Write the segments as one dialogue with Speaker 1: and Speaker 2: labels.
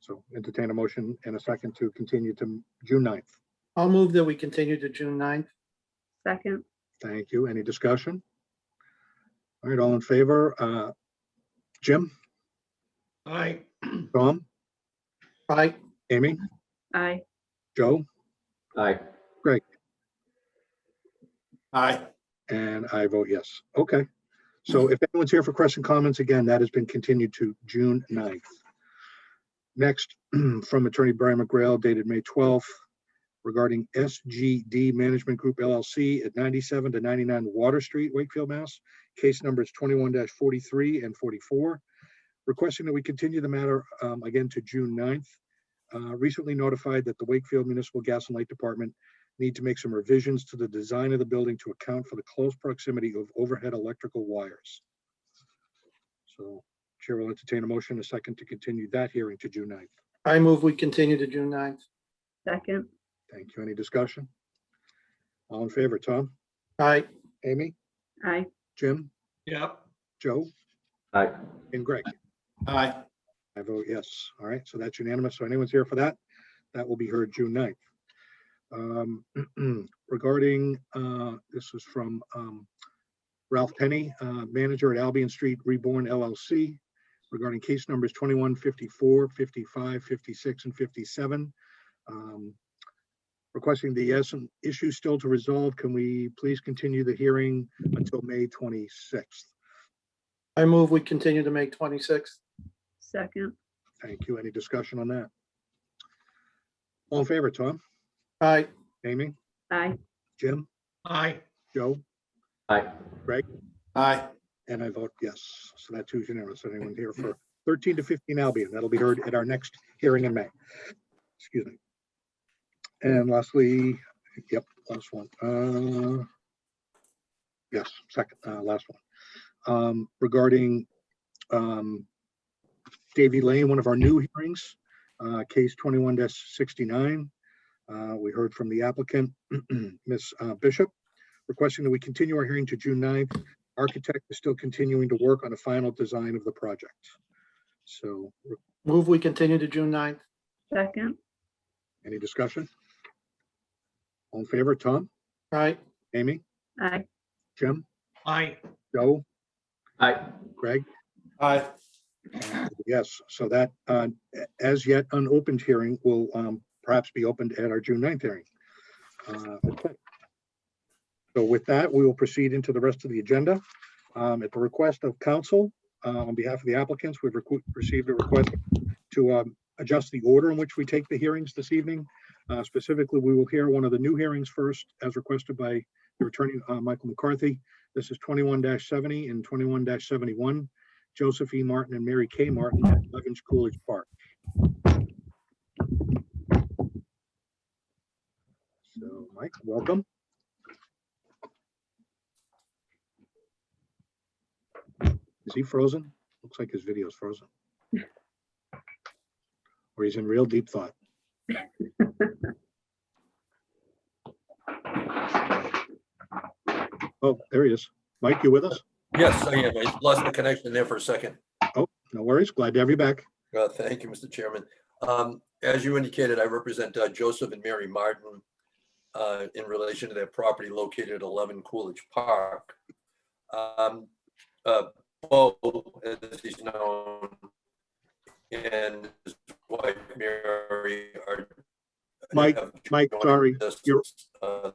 Speaker 1: So entertain a motion and a second to continue to June 9th.
Speaker 2: I'll move that we continue to June 9th.
Speaker 3: Second,
Speaker 1: Thank you. Any discussion? All right, all in favor? Uh, Jim,
Speaker 4: Aye.
Speaker 1: Tom,
Speaker 2: Aye,
Speaker 1: Amy,
Speaker 3: aye.
Speaker 1: Joe,
Speaker 5: Aye.
Speaker 4: Aye.
Speaker 1: and I vote yes. Okay. So if anyone's here for question comments, again, that has been continued to June 9th. Next, from Attorney Brian McGrail dated May 12th regarding SGD Management Group LLC at 97 to 99 Water Street, Wakefield, Mass. Case numbers 21-43 and 44. Requesting that we continue the matter um, again to June 9th. Uh, Recently notified that the Wakefield Municipal Gas and Light Department need to make some revisions to the design of the building to account for the close proximity of overhead electrical wires. So Chair will entertain a motion, a second to continue that hearing to June 9th.
Speaker 2: I move we continue to June 9th.
Speaker 3: Second,
Speaker 1: Thank you. Any discussion? All in favor, Tom,
Speaker 2: Aye,
Speaker 1: Amy,
Speaker 3: aye.
Speaker 1: Jim,
Speaker 4: Yep.
Speaker 1: Joe,
Speaker 5: Aye.
Speaker 1: and Greg?
Speaker 4: Aye.
Speaker 1: I vote yes. All right, so that's unanimous. So anyone's here for that, that will be heard June 9th. Um, Regarding, uh, this is from um, Ralph Penny, uh, manager at Albion Street Reborn LLC, regarding case numbers 21, 54, 55, 56, and 57. Um, Requesting the yes, some issues still to resolve. Can we please continue the hearing until May 26th?
Speaker 2: I move we continue to May 26th.
Speaker 3: Second,
Speaker 1: Thank you. Any discussion on that? All in favor, Tom,
Speaker 2: Aye,
Speaker 1: Amy,
Speaker 3: aye.
Speaker 1: Jim,
Speaker 4: Aye.
Speaker 1: Joe,
Speaker 5: Aye.
Speaker 4: Aye.
Speaker 1: and I vote yes. So that too is unanimous. Anyone here for thirteen to fifteen Albion? That'll be heard at our next hearing in May. Excuse me. And lastly, yep, last one. Uh, Yes, second, uh, last one. Um, regarding, um, Davy Lane, one of our new hearings, uh, case twenty-one sixty-nine. Uh, we heard from the applicant, Ms. uh, Bishop, requesting that we continue our hearing to June 9th. Architect is still continuing to work on a final design of the project. So,
Speaker 2: move we continue to June 9th.
Speaker 3: Second,
Speaker 1: any discussion? All in favor, Tom,
Speaker 2: Aye,
Speaker 1: Amy,
Speaker 3: aye.
Speaker 1: Jim,
Speaker 4: Aye.
Speaker 1: Joe,
Speaker 5: Aye.
Speaker 1: Greg?
Speaker 4: Aye.
Speaker 1: Yes, so that, uh, a- as yet unopened hearing will um, perhaps be opened at our June 9th hearing. Uh, okay. So with that, we will proceed into the rest of the agenda. Um, At the request of council, uh, on behalf of the applicants, we've recu- received a request to um, adjust the order in which we take the hearings this evening. Uh, Specifically, we will hear one of the new hearings first, as requested by the attorney, uh, Michael McCarthy. This is 21-70 and 21-71. Joseph E. Martin and Mary K. Martin at Levens Coolidge Park. So, Mike, welcome. Is he frozen? Looks like his video's frozen. Or he's in real deep thought. Oh, there he is. Mike, you with us?
Speaker 6: Yes, I am. I lost my connection there for a second.
Speaker 1: No worries. Glad to have you back.
Speaker 6: Uh, Thank you, Mr. Chairman. Um, As you indicated, I represent uh, Joseph and Mary Martin uh, in relation to their property located at 11 Coolidge Park. Um, uh, Bo, as he's known, and his wife Mary are.
Speaker 1: Mike,
Speaker 6: have
Speaker 1: Mike,
Speaker 6: joined
Speaker 1: sorry,
Speaker 6: us,
Speaker 1: you're-
Speaker 6: uh,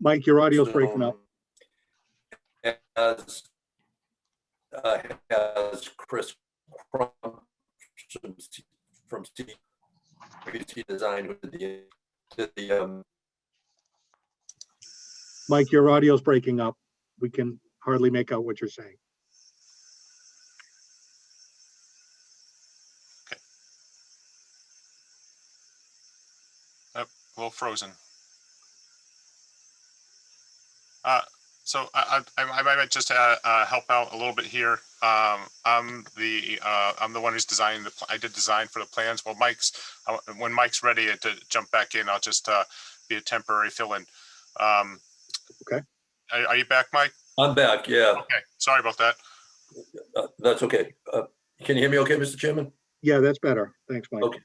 Speaker 1: Mike, your audio's breaking up.
Speaker 6: Zoom As, uh, as Chris Crump from CPC Design who did the, did the, um,
Speaker 1: Mike, your audio's breaking up. We can hardly make out what you're saying.
Speaker 7: Well, frozen. Uh, so I, I, I I might just, uh, uh, help out a little bit here. Um, I'm the, uh, I'm the one who's designing the, pl- I did design for the plans. Well, Mike's, uh, when Mike's ready to jump back in, I'll just, uh, be a temporary fill-in. Um,
Speaker 1: Okay.
Speaker 7: Are, are you back, Mike?
Speaker 6: I'm back, yeah,
Speaker 7: Okay, sorry about that.
Speaker 6: uh, that's okay. Uh, Can you hear me okay, Mr. Chairman?
Speaker 1: Yeah, that's better. Thanks, Mike.
Speaker 6: Okay.